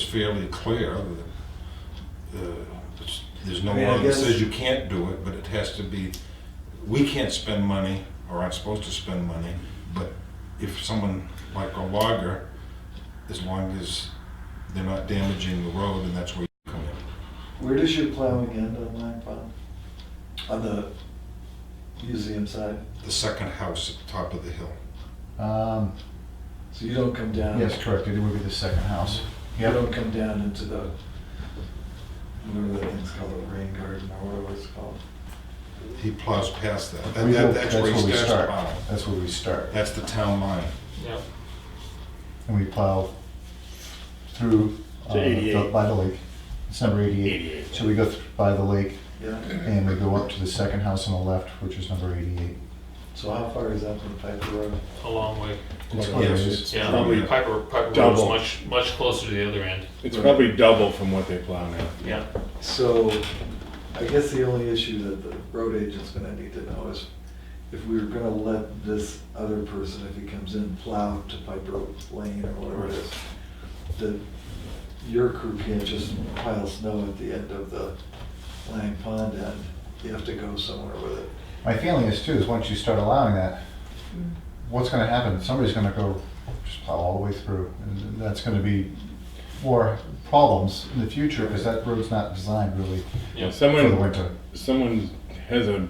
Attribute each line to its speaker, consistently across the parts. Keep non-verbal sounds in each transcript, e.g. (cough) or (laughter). Speaker 1: fairly clear that, uh, it's- there's no
Speaker 2: I mean, I
Speaker 1: law that
Speaker 2: guess-
Speaker 1: says you can't do it, but it has to be, we can't spend money, or aren't supposed to spend money, but if someone, like a logger, as long as they're not damaging the road, then that's where you come in.
Speaker 2: Where does your plowing end on Lang Pond? On the museum side?
Speaker 1: The second house at the top of the hill.
Speaker 3: Um,
Speaker 2: So you don't come
Speaker 1: Um,
Speaker 2: down?
Speaker 3: yes, correct, it would be the second house.
Speaker 2: You
Speaker 3: Yep.
Speaker 2: don't come down into the, whatever that thing's called, the rain garden or whatever it's called?
Speaker 1: He plows past that. That-
Speaker 3: We go-
Speaker 1: that- That's where he
Speaker 3: we
Speaker 1: starts
Speaker 3: start.
Speaker 1: plowing.
Speaker 3: That's where we start,
Speaker 1: That's the town line.
Speaker 4: Yeah,
Speaker 3: and we plow through.
Speaker 5: To
Speaker 3: uh,
Speaker 5: 88.
Speaker 3: By the lake, it's number eighty-eight.
Speaker 5: 88,
Speaker 3: So we go th- by the lake,
Speaker 2: Yeah?
Speaker 3: and we go up to the second house on the left, which is number eighty-eight.
Speaker 2: So how far is that from the Piper Road?
Speaker 4: a long way.
Speaker 3: It's
Speaker 1: Yes,
Speaker 3: quite a
Speaker 1: it's-
Speaker 3: ways.
Speaker 4: Yeah,
Speaker 1: Probably-
Speaker 4: Piper, Piper Road's
Speaker 5: Double.
Speaker 4: much, much closer to the other end.
Speaker 5: It's probably double from what they plow now.
Speaker 4: Yeah.
Speaker 2: So I guess the only issue that the road agent's gonna need to know is if we were gonna let this other person, if he comes in, plow to Piper Lane or whatever it is, that your crew can't just pile snow at the end of the Lang Pond end. You have to go somewhere with it.
Speaker 3: My feeling is too, is once you start allowing that, what's gonna happen? Somebody's gonna go just plow all the way through, and that's gonna be more problems in the future, because that road's not designed really for the
Speaker 4: Yeah.
Speaker 5: Someone,
Speaker 3: winter.
Speaker 5: someone has a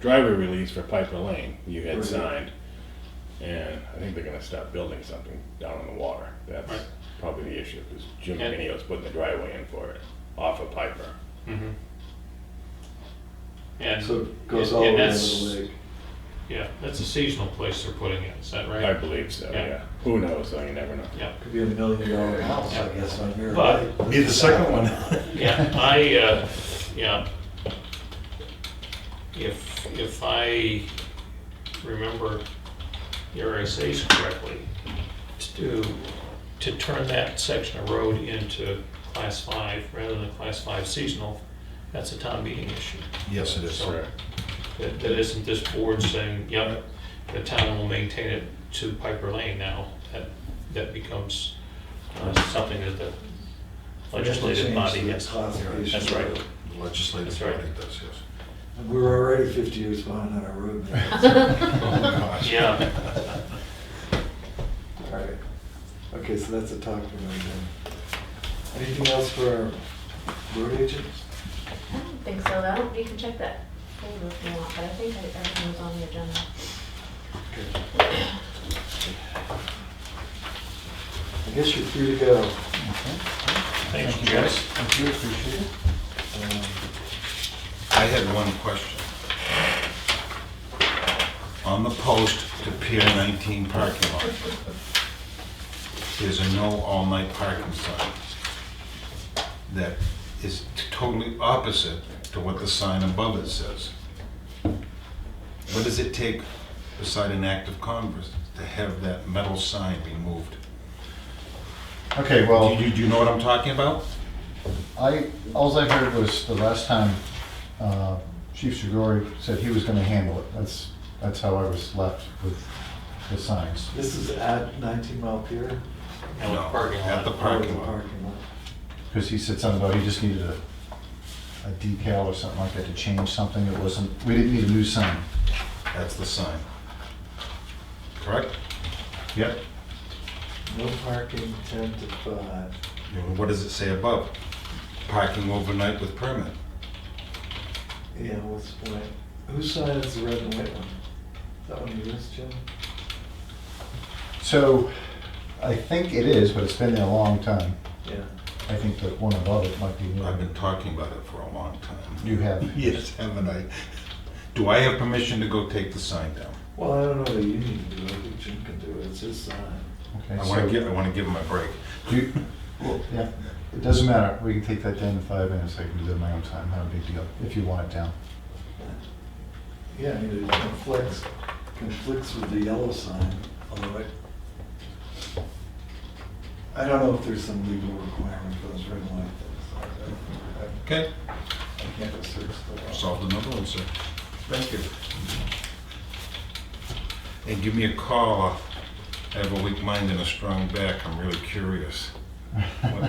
Speaker 5: driver release for Piper Lane you had
Speaker 2: Right.
Speaker 5: signed. And I think they're gonna stop building something down in the water. That's
Speaker 4: Right.
Speaker 5: probably the issue, because Jim
Speaker 4: And-
Speaker 5: McNeil's putting the driveway in for it, off of Piper.
Speaker 4: Mhm. And,
Speaker 2: So it goes
Speaker 4: and-
Speaker 2: all the
Speaker 4: and
Speaker 2: way to
Speaker 4: that's-
Speaker 2: the lake.
Speaker 4: Yeah, that's a seasonal place they're putting it, is that
Speaker 5: I
Speaker 4: right?
Speaker 5: believe so,
Speaker 4: Yeah.
Speaker 5: yeah. Who knows, though, you never know.
Speaker 4: Yeah,
Speaker 2: Could be a million dollar house, I guess, on your
Speaker 4: But-
Speaker 2: lake.
Speaker 1: Be the second one.
Speaker 4: yeah, I, uh, yeah. If, if I remember the RSA's correctly, to, to turn that section of road into class five rather than class five seasonal, that's a town meeting issue.
Speaker 1: Yes, it is.
Speaker 4: So- That, that isn't this board saying, yep, the town will maintain it to Piper Lane now, that, that becomes uh, something that the legislative body
Speaker 2: Change the
Speaker 4: has.
Speaker 2: classification.
Speaker 4: That's right.
Speaker 1: The Legislative
Speaker 4: That's right.
Speaker 1: body does, yes.
Speaker 2: And We're already 50 years behind on our road. maintenance.
Speaker 1: Oh, gosh.
Speaker 4: Yeah,
Speaker 2: All right. Okay, so that's a talk for another day. Anything else for our road agent?
Speaker 6: I don't think so, though. You can check that folder if you want, but I think that everything was on the agenda.
Speaker 2: Okay. I guess you're free to go.
Speaker 4: thanks, you guys.
Speaker 3: Thank you, appreciate it.
Speaker 2: Um,
Speaker 1: I had one question. On the post to Pier 19 parking lot, there's a no all-night parking sign that is totally opposite to what the sign above it says. What does it take beside an act of Congress to have that metal sign removed?
Speaker 3: (laughs) Okay,
Speaker 1: Do
Speaker 3: well.
Speaker 1: you, do you know what I'm talking about?
Speaker 3: I, alls I heard was the last time uh, Chief Shigori said he was gonna handle it. That's, that's how I was left with the signs.
Speaker 2: This is at 19 Mile Pier?
Speaker 4: Now with the parking
Speaker 1: At the
Speaker 4: lot.
Speaker 1: parking
Speaker 2: Oh,
Speaker 1: lot.
Speaker 2: Parking lot.
Speaker 3: Because he said something about he just needed a, a decal or something like that to change something. It wasn't, we didn't need a new sign.
Speaker 1: That's the sign. Correct?
Speaker 3: Yep.
Speaker 2: No parking, 10 to
Speaker 1: You
Speaker 2: 5.
Speaker 1: know, What does it say above? Parking overnight with permit.
Speaker 2: Yeah, what's the point? Whose side is the red and white one? Is that one yours, Jim?
Speaker 3: So I think it is, but it's been there a long time.
Speaker 2: Yeah.
Speaker 3: I think the one above it might be new.
Speaker 1: I've been talking about it for a long time.
Speaker 3: You have.
Speaker 1: (laughs) Yes, haven't I? Do I have permission to go take the sign down?
Speaker 2: Well, I don't know that you need to do it, I think Jim can do it, it's his sign.
Speaker 3: Okay,
Speaker 1: I want
Speaker 3: so-
Speaker 1: to give, I want to give him a break.
Speaker 3: Do you- well, yeah, it doesn't matter. We can take that down in five minutes. I can do it in my own time. Not a big deal, if you want it down.
Speaker 2: Yeah, I mean, it conflicts, conflicts with the yellow sign, although I, I don't know if there's some legal requirement for those red and white things. I-
Speaker 1: (laughs) Okay,
Speaker 2: I I can't research the law.
Speaker 1: solved another one, sir. Thank you. And give me a
Speaker 3: (laughs)
Speaker 1: call. I have a weak mind and a strong back. I'm really curious.